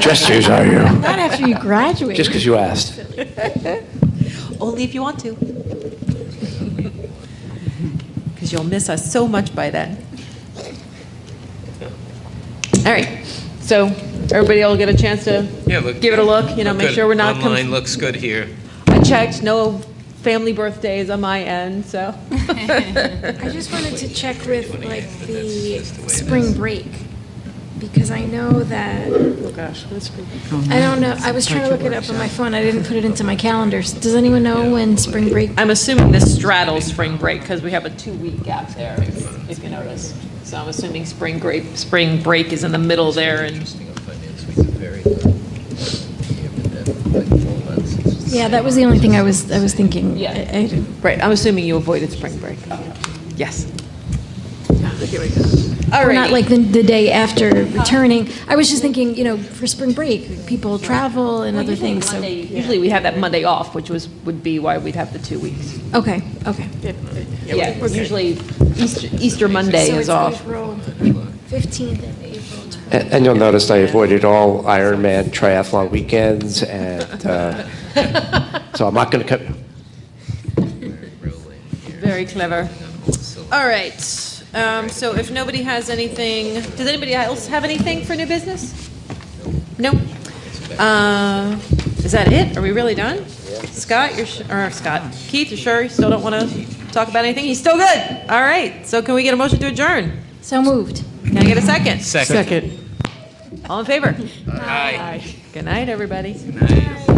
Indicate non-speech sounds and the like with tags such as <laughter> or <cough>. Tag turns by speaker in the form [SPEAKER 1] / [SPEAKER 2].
[SPEAKER 1] Just as are you.
[SPEAKER 2] Not after you graduate.
[SPEAKER 1] Just because you asked.
[SPEAKER 3] Only if you want to. Because you'll miss us so much by then.
[SPEAKER 2] All right, so everybody will get a chance to
[SPEAKER 4] Yeah, look.
[SPEAKER 2] give it a look, you know,
[SPEAKER 4] look
[SPEAKER 2] make
[SPEAKER 4] good.
[SPEAKER 2] sure we're not. conf-
[SPEAKER 4] Online looks good here.
[SPEAKER 2] I checked, no family birthdays on my end, <laughs> so.
[SPEAKER 5] I just wanted to check with like the spring break, because I know that,
[SPEAKER 2] Oh, gosh, that's pretty.
[SPEAKER 5] I don't know, I was trying to look it up on my phone, I didn't put it into my calendar. Does anyone know when spring break?
[SPEAKER 2] I'm assuming this straddles spring break because we have a two-week gap there, if if you notice. So I'm assuming spring break, spring break is in the middle there and,
[SPEAKER 6] Interesting on finance week, very good. Yeah, but then, like, four months, it's just the
[SPEAKER 5] Yeah,
[SPEAKER 6] same.
[SPEAKER 5] that was the only thing I was, I was thinking.
[SPEAKER 2] Yeah.
[SPEAKER 5] I- I didn't-
[SPEAKER 2] right, I'm assuming you avoided spring break. Yes. All
[SPEAKER 5] Or not
[SPEAKER 2] right.
[SPEAKER 5] like the, the day after returning. I was just thinking, you know, for spring break, people travel and other things, so.
[SPEAKER 2] Usually we have that Monday off, which was, would be why we'd have the two weeks.
[SPEAKER 5] Okay, okay.
[SPEAKER 2] Yeah, usually Easter, Easter Monday
[SPEAKER 5] So
[SPEAKER 2] is
[SPEAKER 5] it's
[SPEAKER 2] off.
[SPEAKER 5] April 15th and April 20th.
[SPEAKER 1] And and you'll notice I avoided all Ironman triathlon weekends, and uh, so I'm not going to come.
[SPEAKER 2] Very clever.
[SPEAKER 3] All right, um, so if nobody has anything, does anybody else have anything for new business? No? Uh, Is that it? Are we really done? Scott, you're, su- or Scott, Keith, you sure you still don't want to talk about anything? He's still good. All right, so can we get a motion to adjourn?
[SPEAKER 5] So moved.
[SPEAKER 3] Can I get a second?
[SPEAKER 4] Second.
[SPEAKER 3] All in favor?
[SPEAKER 4] Aye.
[SPEAKER 3] Good night, everybody.
[SPEAKER 4] Nice.